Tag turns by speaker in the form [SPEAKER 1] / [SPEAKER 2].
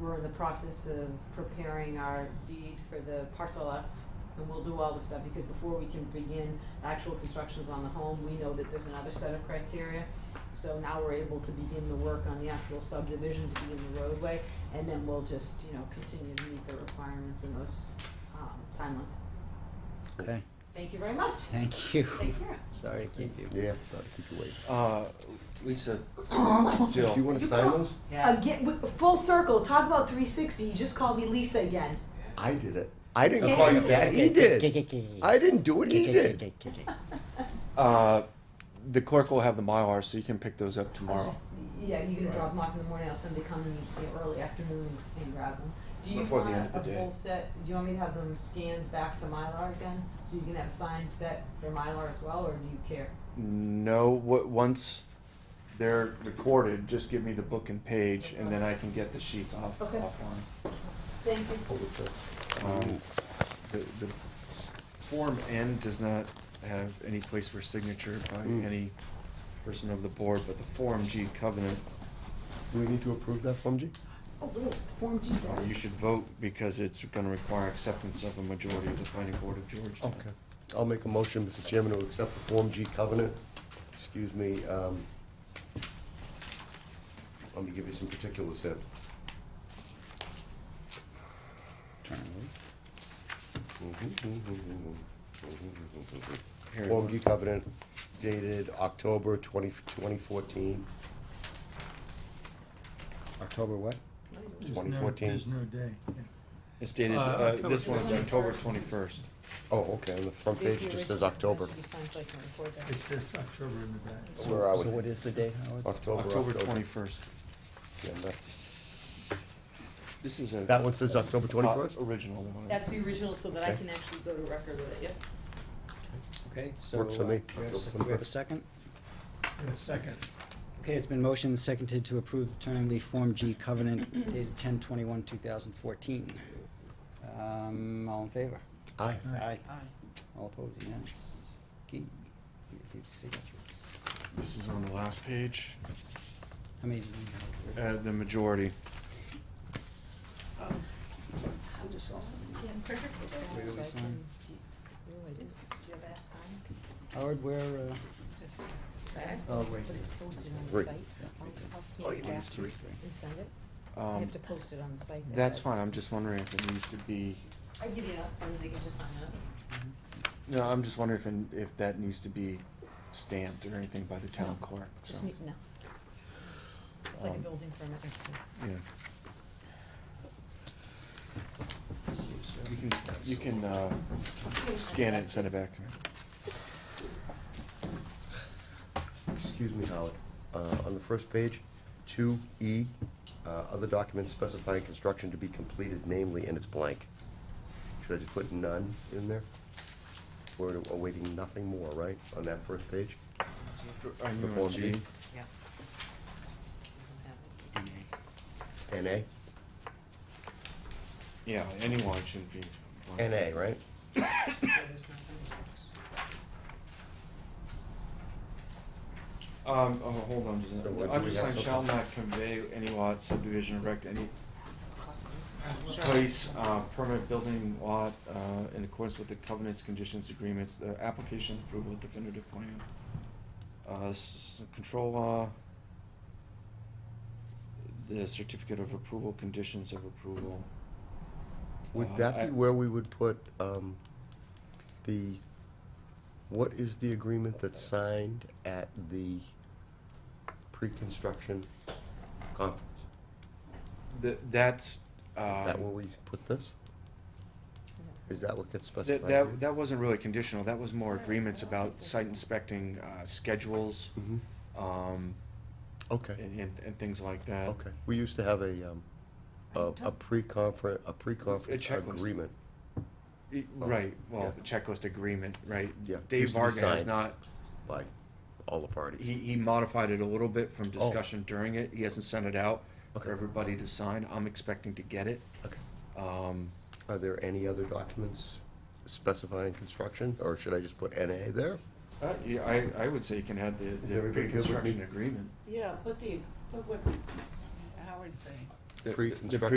[SPEAKER 1] we're in the process of preparing our deed for the parcel F, and we'll do all the stuff, because before we can begin actual constructions on the home, we know that there's another set of criteria. So now we're able to begin the work on the actual subdivision to begin the roadway, and then we'll just, you know, continue to meet the requirements in those, um, timelines.
[SPEAKER 2] Okay,
[SPEAKER 1] Thank you very much.
[SPEAKER 2] thank you.
[SPEAKER 1] Take care.
[SPEAKER 2] Sorry to keep you.
[SPEAKER 3] Yeah, sorry, keep you waiting.
[SPEAKER 4] Uh, Lisa,
[SPEAKER 3] Do you
[SPEAKER 4] Jill,
[SPEAKER 3] wanna sign those?
[SPEAKER 1] Again, w- full circle, talk about three sixty, you just called me Lisa again.
[SPEAKER 3] I did it. I didn't call you that, he did. I didn't do it, he did.
[SPEAKER 4] uh, the clerk will have the Mylar, so you can pick those up tomorrow.
[SPEAKER 1] Yeah, you can drop them off in the morning, I'll send they come in the early afternoon and grab them. Do you
[SPEAKER 4] Before the
[SPEAKER 1] want
[SPEAKER 4] end
[SPEAKER 1] a
[SPEAKER 4] of the
[SPEAKER 1] full
[SPEAKER 4] day.
[SPEAKER 1] set, do you want me to have them scanned back to Mylar again? So you can have signed set for Mylar as well, or do you care?
[SPEAKER 4] No, what, once they're recorded, just give me the book and page, and then I can get the sheets off,
[SPEAKER 1] Okay.
[SPEAKER 4] offline.
[SPEAKER 1] Thank you.
[SPEAKER 4] Um, the, the Form N does not have any place for signature by
[SPEAKER 3] Mm.
[SPEAKER 4] any person of the board, but the Form G covenant,
[SPEAKER 3] Do we need to approve that Form G?
[SPEAKER 1] Oh, really? Form G
[SPEAKER 4] uh,
[SPEAKER 1] does.
[SPEAKER 4] you should vote because it's gonna require acceptance of a majority of the planning board of Georgetown.
[SPEAKER 3] I'll make a motion, Mr. Chairman, to accept the Form G covenant. Excuse me, um, let me give you some particulars here.
[SPEAKER 4] Here.
[SPEAKER 3] Form G covenant dated October 20 2014.
[SPEAKER 2] October what?
[SPEAKER 5] There's no-
[SPEAKER 3] 2014.
[SPEAKER 5] There's no day. yeah.
[SPEAKER 4] It's dated,
[SPEAKER 5] Uh,
[SPEAKER 4] uh,
[SPEAKER 5] October
[SPEAKER 4] this one's October
[SPEAKER 1] 21st.
[SPEAKER 4] twenty-first.
[SPEAKER 3] Oh, okay, on the front page it just says October.
[SPEAKER 1] Should be signed so I can record that.
[SPEAKER 5] It says October in the back.
[SPEAKER 3] Where are
[SPEAKER 2] So what
[SPEAKER 3] we? Oh,
[SPEAKER 2] is the date, Howard?
[SPEAKER 3] October,
[SPEAKER 4] October
[SPEAKER 3] October.
[SPEAKER 4] twenty-first.
[SPEAKER 3] Yeah, that's,
[SPEAKER 4] This is a.
[SPEAKER 3] that one says October
[SPEAKER 4] uh,
[SPEAKER 3] twenty-first?
[SPEAKER 4] Original one.
[SPEAKER 6] That's the original, so that I
[SPEAKER 3] Okay.
[SPEAKER 6] can actually go to record with it, yep.
[SPEAKER 2] Okay, so.
[SPEAKER 3] Works for me.
[SPEAKER 2] uh, do we have a s- Do we have a second?
[SPEAKER 5] Yeah, Second.
[SPEAKER 2] Okay, it's been motioned and seconded to approve the Turning Leaf Form G Covenant dated ten twenty-one, two thousand fourteen. Um, all in favor?
[SPEAKER 3] Aye.
[SPEAKER 2] Aye.
[SPEAKER 6] Aye.
[SPEAKER 2] All opposed, unanimous. Okay, we have to see that.
[SPEAKER 4] This is on the last page,
[SPEAKER 2] How many did we have?
[SPEAKER 4] uh, the majority.
[SPEAKER 2] I just saw something. Where do we
[SPEAKER 1] So I
[SPEAKER 2] sign?
[SPEAKER 1] can- do you- oh, it is.
[SPEAKER 2] Howard, where, uh?
[SPEAKER 1] Just-
[SPEAKER 2] Oh, wait.
[SPEAKER 1] Put it posted on the
[SPEAKER 3] Three.
[SPEAKER 1] site. I'll, I'll scan
[SPEAKER 3] Oh,
[SPEAKER 1] it
[SPEAKER 3] you need
[SPEAKER 1] back
[SPEAKER 3] three.
[SPEAKER 1] and send it. You
[SPEAKER 4] Um,
[SPEAKER 1] have to post it on the site.
[SPEAKER 4] that's fine, I'm just wondering if it needs to be,
[SPEAKER 1] I give you that, and they can just sign it.
[SPEAKER 4] no, I'm just wondering if, in- if that needs to be stamped or anything by the town clerk, so.
[SPEAKER 1] Just need, no. It's like a
[SPEAKER 4] Um,
[SPEAKER 1] building permit, it says.
[SPEAKER 4] Yeah, you can, you can, uh, scan it and send it back to me.
[SPEAKER 3] Excuse me, Howard. Uh, on the first page, two E, uh, other documents specifying construction to be completed, namely, and it's blank. Should I just put none in there? We're awaiting nothing more, right, on that first page?
[SPEAKER 4] I'm
[SPEAKER 3] The
[SPEAKER 4] on
[SPEAKER 3] Form
[SPEAKER 4] G.
[SPEAKER 3] B.
[SPEAKER 1] Yeah.
[SPEAKER 3] NA?
[SPEAKER 4] Yeah, anyone should be.
[SPEAKER 3] NA, right?
[SPEAKER 4] Oh, Um, oh, hold on, just a
[SPEAKER 3] So what do
[SPEAKER 4] minute. I'm
[SPEAKER 3] we
[SPEAKER 4] just
[SPEAKER 3] have
[SPEAKER 4] saying,
[SPEAKER 3] so
[SPEAKER 4] shall
[SPEAKER 3] far?
[SPEAKER 4] not convey any lot subdivision erect any place, uh, permanent building lot, uh, in accordance with the covenants, conditions, agreements, the application approval of definitive plan. Uh, s- control law. The certificate of approval, conditions of approval.
[SPEAKER 3] Would
[SPEAKER 4] Uh,
[SPEAKER 3] that
[SPEAKER 4] I-
[SPEAKER 3] be where we would put, um, the, what is the agreement that's signed at the pre-construction conference?
[SPEAKER 4] Th- that's,
[SPEAKER 3] Is
[SPEAKER 4] uh,
[SPEAKER 3] that where we put this? Is that what gets specified?
[SPEAKER 4] that, that, that wasn't really conditional, that was more agreements about site inspecting, uh, schedules,
[SPEAKER 3] hmm
[SPEAKER 4] um,
[SPEAKER 3] okay,
[SPEAKER 4] and, and, and things like that.
[SPEAKER 3] okay. We used to have a, um, a, a pre-conference, a pre-conference
[SPEAKER 4] checklist.
[SPEAKER 3] agreement.
[SPEAKER 4] Y-
[SPEAKER 3] Oh,
[SPEAKER 4] Right, well,
[SPEAKER 3] yeah.
[SPEAKER 4] checklist agreement, right?
[SPEAKER 3] Yeah,
[SPEAKER 4] Dave
[SPEAKER 3] used to be
[SPEAKER 4] Varga has
[SPEAKER 3] signed.
[SPEAKER 4] not,
[SPEAKER 3] By all the
[SPEAKER 4] he,
[SPEAKER 3] parties.
[SPEAKER 4] he modified it a little bit from
[SPEAKER 3] Oh.
[SPEAKER 4] discussion during it, he hasn't sent it out
[SPEAKER 3] Okay.
[SPEAKER 4] for everybody to sign, I'm expecting to get it.
[SPEAKER 3] Okay.
[SPEAKER 4] Um,
[SPEAKER 3] Are there any other documents specifying construction, or should I just put NA there?
[SPEAKER 4] uh, yeah, I, I would say you can have the,
[SPEAKER 3] Is
[SPEAKER 4] the
[SPEAKER 3] everybody good with me?
[SPEAKER 4] pre-construction agreement.
[SPEAKER 6] Yeah, put the, put what Howard's saying.
[SPEAKER 4] The- the
[SPEAKER 3] Pre-construction